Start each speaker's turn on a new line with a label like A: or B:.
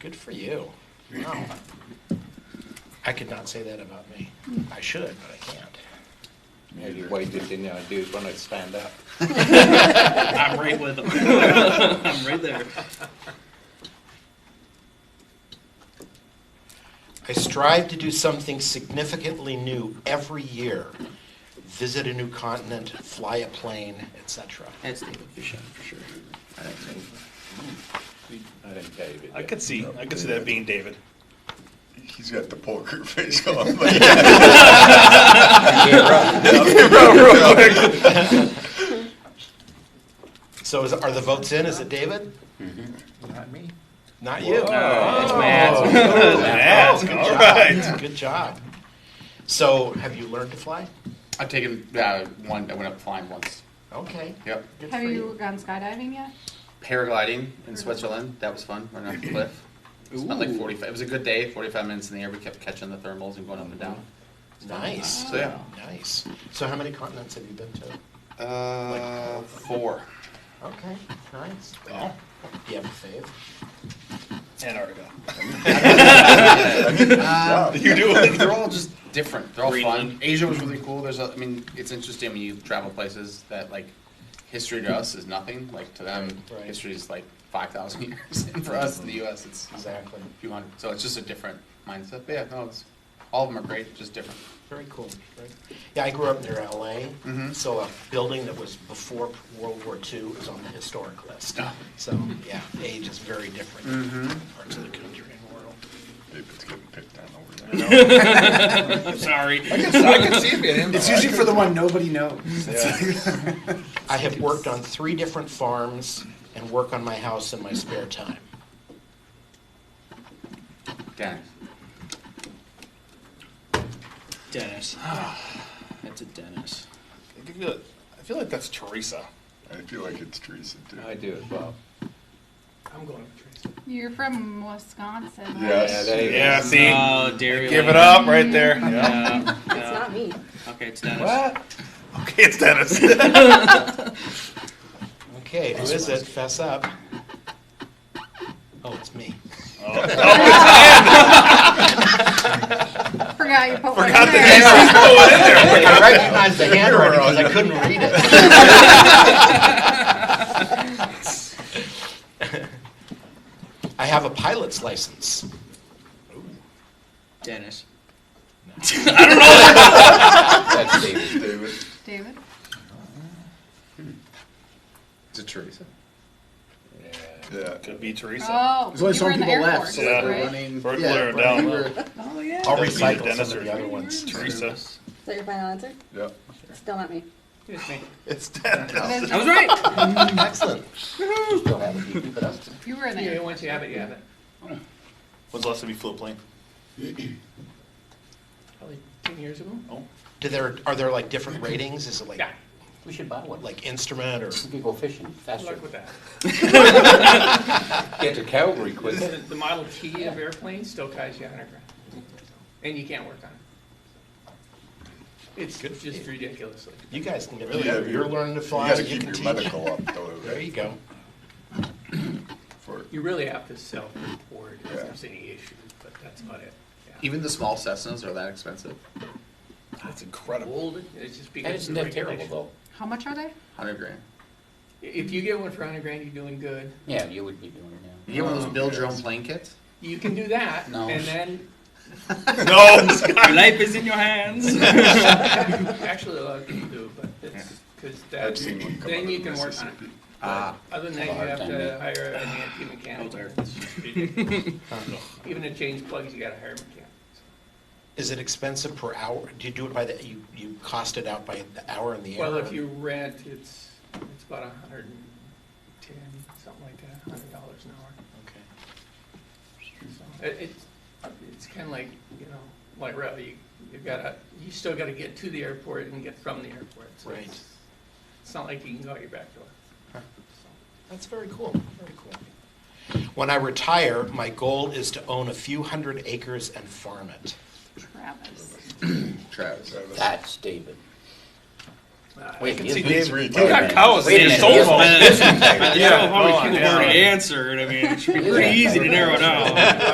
A: Good for you. Wow. I could not say that about me. I should, but I can't.
B: Maybe wait till you know, dude, when I stand up.
C: I'm right with them. I'm right there.
A: I strive to do something significantly new every year. Visit a new continent, fly a plane, etc.
C: That's David Bishop for sure.
B: I think David.
D: I
B: did.
D: could see, I could see that being David.
E: He's got the poker face on.
A: So is, are the votes in? Is it David?
B: Mm-hmm. Not me.
A: Not you. Oh,
C: It's Matt.
D: Mask,
A: good
D: all
A: job.
D: right.
A: Good job. So have you learned to fly?
F: I've taken uh, one. I went up flying once.
A: Okay.
F: Yep.
A: Good
G: Have
A: for you.
G: you gone skydiving yet?
F: Paragliding in Switzerland. That was fun. Running off a cliff. Spent like
C: Ooh.
F: 45. It was a good day. 45 minutes in the air. We kept catching the thermals and going up and down.
A: Nice.
F: So yeah.
A: Nice. So how many continents have you been to?
F: Uh, four.
A: Okay, nice.
D: Well,
A: Do you have a fave?
D: Antarctica.
F: Uh,
D: You do it.
F: they're all just different. They're all
D: Greenland.
F: fun. Asia was really cool. There's, a, I mean, it's interesting when you travel places that like history to us is nothing. Like to them,
A: Right.
F: history is like 5,000 years, and for us in the U.S., it's
A: Exactly.
F: a few hundred. So it's just a different mindset. But yeah, no, it's all of them are great. Just different.
A: Very cool. Very- Yeah, I grew up near LA,
F: Mhm.
A: so a building that was before World War II is on the historic list.
F: Oh.
A: So, yeah, age is very different in parts of the country and world.
E: David's getting picked on over there.
C: Sorry.
B: I could see it being him.
F: It's usually for the one nobody knows.
A: I have worked on three different farms and work on my house in my spare time.
F: Dennis.
C: Dennis. That's a Dennis.
D: I feel- I feel like that's Teresa.
E: I feel like it's Teresa too.
B: I do as well.
G: You're from Wisconsin. right?
B: Yeah,
E: Yes.
B: David.
D: Yeah, see,
C: Oh, Dario.
D: give it up right there. Yeah.
C: Yeah,
H: It's
C: yeah.
H: not me.
C: Okay, it's Dennis.
D: What? Okay, it's Dennis. Oh,
A: Okay, who is it? Fess up. Oh, it's me.
G: Forgot you put one in
D: Forgot the
G: there.
D: Dennis was going in there.
A: I recognized the handwriting because I couldn't read it. I have a pilot's license.
C: Dennis.
B: That's David.
E: David.
G: David?
F: Is it Teresa?
E: Yeah.
D: Could be Teresa.
G: Oh,
H: There's only
G: you
H: some
G: were in the
H: people left,
G: airport,
H: so
D: Yeah.
G: right?
D: We're
H: Yeah,
D: clearing
H: right.
D: down
H: You
D: low.
H: were-
C: Oh, yeah.
A: I'll
D: Doesn't mean
A: recycle
D: Dennis
A: some of
D: or
A: the other ones.
D: Teresa.
H: Is that your final answer?
E: Yeah.
H: Still not me.
D: It's Dennis.
C: I was right.
A: Excellent.
B: Still haven't beaten it up.
G: You were in the airport.
F: you have it, you have it.
D: When's the last time you flew a plane?
F: Probably 10 years ago.
D: Oh,
A: Do there, are there like different
I: Mm-hmm.
A: ratings? Is it like,
F: Yeah.
B: We should buy one. Like,
A: like instrument or?
B: we could go fishing faster.
F: that.
B: Get to Calgary quicker.
F: The Model T of airplanes still ties you underground. And you can't work on it. It's just ridiculously.
A: You guys can get,
E: Really,
A: you're,
E: you-
A: you're learning to
E: You
A: fly,
E: gotta
A: you
E: keep
A: can
E: your
A: teach.
E: medical up though.
A: There you go.
E: For,
I: You really have to self-report if
E: Yeah.
I: there's any issues, but that's about it. Yeah.
F: Even the small Cessnas are that expensive.
D: that's incredible.
I: Old, it's just because.
B: That
I: of
B: isn't
I: the
B: that terrible
I: regulation.
B: though.
G: How much are they?
F: 100 grand.
I: If you get one for hundred grand, you're doing good.
B: Yeah, you would be doing it now.
F: You get one of those build your own plane kits?
I: You can do that,
B: No.
I: and then,
D: No,
C: Your life is in your hands.
I: actually, a lot of people do, but it's, because
E: I've
I: that,
E: seen one come out
I: then
E: of
I: you can work on it.
E: Mississippi.
F: Ah.
I: Other than that,
B: Have a
I: you
B: hard
I: have
B: time,
I: to
B: yeah.
I: hire an anti mechanic. It's just ridiculous.
A: Um,
I: Even to change plugs, you gotta hire a mechanic.
A: Is it expensive per hour? Do you do it by the, you, you cost it out by the hour in the air?
I: Well, if
A: or-
I: you rent, it's, it's about a hundred and ten, something like that, hundred dollars an hour.
A: Okay.
I: So It, it's, it's kind of like, you know, like rail, you, you gotta, you still gotta get to the airport and get from the airport. So
A: Right.
I: it's- It's not like you can go out your back door.
A: That's very cool, very cool. When I retire, my goal is to own a few hundred acres and farm it.
G: Travis.
F: Travis.
E: Travis.
B: That's David.
F: Wait,
E: can
F: you-
E: see Dave's
D: We
E: retiring.
D: got cows
F: Wait a
D: in his
F: minute,
D: soul
F: yes,
D: phone.
C: By the show, how
D: hold
C: many
D: on,
C: people have
D: yeah.
C: already answered, I mean, it should be pretty easy to narrow down.